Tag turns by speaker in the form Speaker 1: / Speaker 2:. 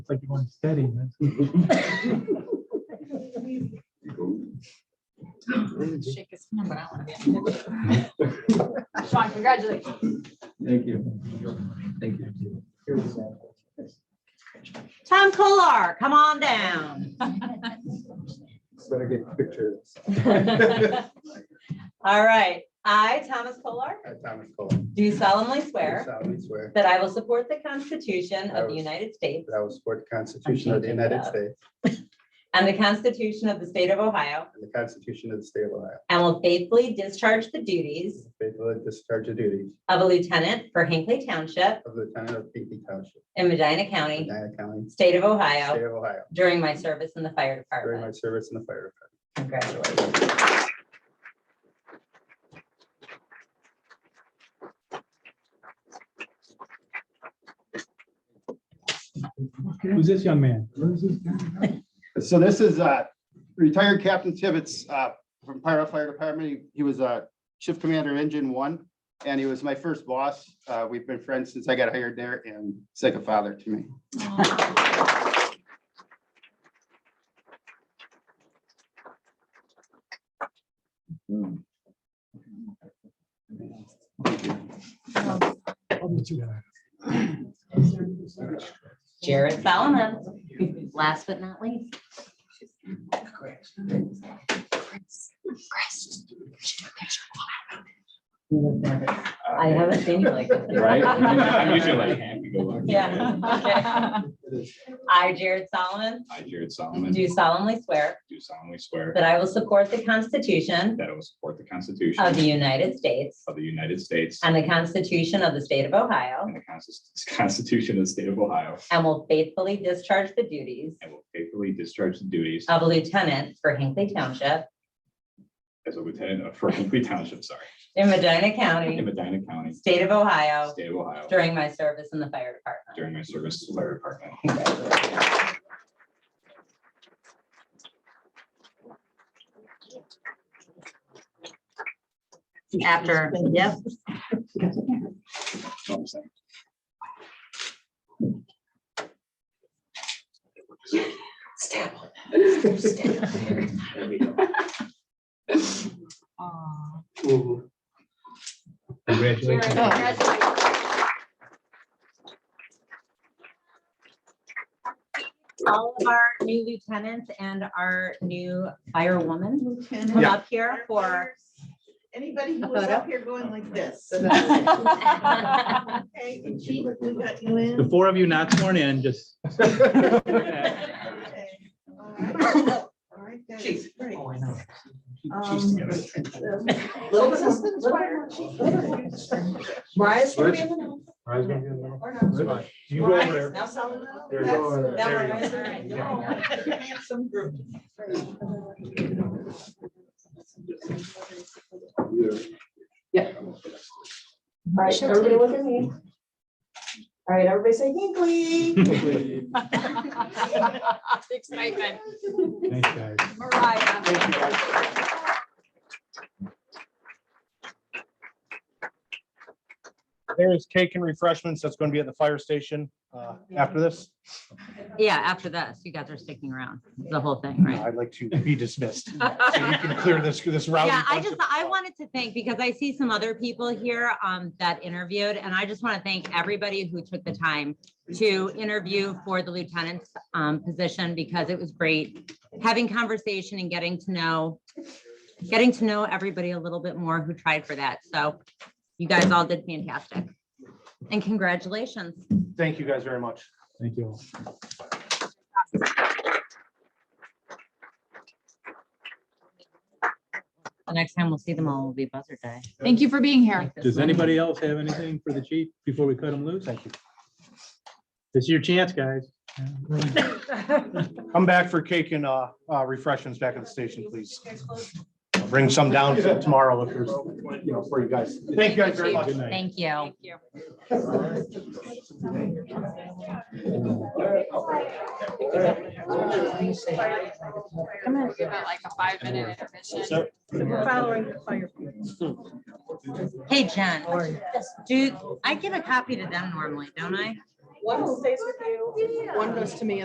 Speaker 1: It's like you're going steady, man.
Speaker 2: Shake his hand, but I don't want to. Sean, congratulations.
Speaker 3: Thank you. Thank you.
Speaker 4: Tom Kolar, come on down.
Speaker 3: Better get pictures.
Speaker 4: All right. I, Thomas Kolar,
Speaker 3: I, Thomas Cole.
Speaker 4: do solemnly swear
Speaker 3: solemnly swear
Speaker 4: that I will support the Constitution
Speaker 3: I
Speaker 4: of the
Speaker 3: will-
Speaker 4: United States
Speaker 3: that I will support the Constitution of the United States
Speaker 4: and the Constitution of the State of Ohio
Speaker 3: and the Constitution of the State of Ohio.
Speaker 4: and will faithfully discharge the duties
Speaker 3: Faithfully discharge the duties
Speaker 4: of a lieutenant for Hinckley Township
Speaker 3: of Lieutenant of Pinckney Township,
Speaker 4: in Medina County,
Speaker 3: Medina County,
Speaker 4: State of
Speaker 3: State
Speaker 4: Ohio,
Speaker 3: of Ohio,
Speaker 4: during my service in the fire
Speaker 3: during my
Speaker 4: department.
Speaker 3: service in the fire
Speaker 4: Congratulations.
Speaker 3: department.
Speaker 1: Who's this young man?
Speaker 5: So this is uh, retired Captain Tibbetts uh, from Pyro Fire Department. He- He was a shift commander engine one, and he was my first boss. Uh, We've been friends since I got hired there, and he's like a father to me.
Speaker 4: Jared Solomon, last but not least. I haven't seen you like this. before.
Speaker 6: Right? I'm usually like happy go lucky.
Speaker 4: Yeah. I, Jared Solomon,
Speaker 6: I, Jared Solomon,
Speaker 4: do solemnly swear
Speaker 6: do solemnly swear
Speaker 4: that I will support the Constitution
Speaker 6: that I will support the Constitution
Speaker 4: of the United States
Speaker 6: of the United States
Speaker 4: and the Constitution of the State of Ohio
Speaker 6: and the Constis- Constitution of the State of Ohio,
Speaker 4: and will faithfully discharge the duties
Speaker 6: and will faithfully discharge the duties
Speaker 4: of a lieutenant for Hinckley Township
Speaker 6: as a lieutenant of Fort Hinckley Township, sorry,
Speaker 4: in Medina
Speaker 6: in
Speaker 4: County,
Speaker 6: Medina County,
Speaker 4: State of Ohio,
Speaker 6: State of Ohio,
Speaker 4: during my service in the fire department.
Speaker 6: during my service to the fire department.
Speaker 4: After, yep.
Speaker 6: That's what I'm saying.
Speaker 1: Congratulations.
Speaker 4: All of our new lieutenants and our new firewoman come up here for.
Speaker 7: Anybody who
Speaker 4: A
Speaker 7: was
Speaker 4: photo?
Speaker 7: up here going like this. Okay, and Chief, we got you
Speaker 1: The
Speaker 7: in.
Speaker 1: four of you not sworn in, just.
Speaker 7: Okay, all right. All right, that is great.
Speaker 8: Oh,
Speaker 7: Um,
Speaker 6: Just to get it.
Speaker 7: Little assistant fire chief. Brian's gonna be in the middle, or not.
Speaker 1: You go over
Speaker 7: Brian's
Speaker 1: there.
Speaker 7: now selling out.
Speaker 1: There you
Speaker 7: That's-
Speaker 1: go over there.
Speaker 7: that
Speaker 1: There
Speaker 7: one
Speaker 1: go.
Speaker 4: you
Speaker 7: right there.
Speaker 1: All
Speaker 7: Handsome group.
Speaker 8: All right, everybody look at me. All right, everybody say Hinkley.
Speaker 2: Excitement.
Speaker 1: Thanks, guys.
Speaker 2: Mariah.
Speaker 9: There is cake and refreshments that's going to be at the fire station
Speaker 4: Oh,
Speaker 9: uh, after this.
Speaker 4: Yeah, after this, you guys are sticking around, the whole thing, right?
Speaker 9: I'd like to be dismissed. So we can clear this, this route.
Speaker 4: Yeah, I just, I wanted to thank, because I see some other people here um, that interviewed, and I just want to thank everybody who took the time to interview for the lieutenant's um, position, because it was great having conversation and getting to know, getting to know everybody a little bit more who tried for that. So you guys all did fantastic. And congratulations.
Speaker 9: Thank you guys very much.
Speaker 1: Thank you. all.
Speaker 4: The next time we'll see them all will be buzzer day.
Speaker 2: Thank you for being here.
Speaker 4: Like this
Speaker 1: Does
Speaker 4: one.
Speaker 1: anybody else have anything for the chief before we cut him loose? Thank you. This is your chance, guys.
Speaker 9: Come back for cake and uh, uh, refreshments back at the station, please. Bring some down for tomorrow if there's, you know, for you guys. Thank you guys very much.
Speaker 1: Good night.
Speaker 4: Thank you.
Speaker 2: you.
Speaker 8: Come in.
Speaker 2: Give it like a five minute intermission.
Speaker 7: Following the fire.
Speaker 4: Hey, Jen, do, I give a copy to them normally, don't I?
Speaker 8: One stays with you, one goes to me,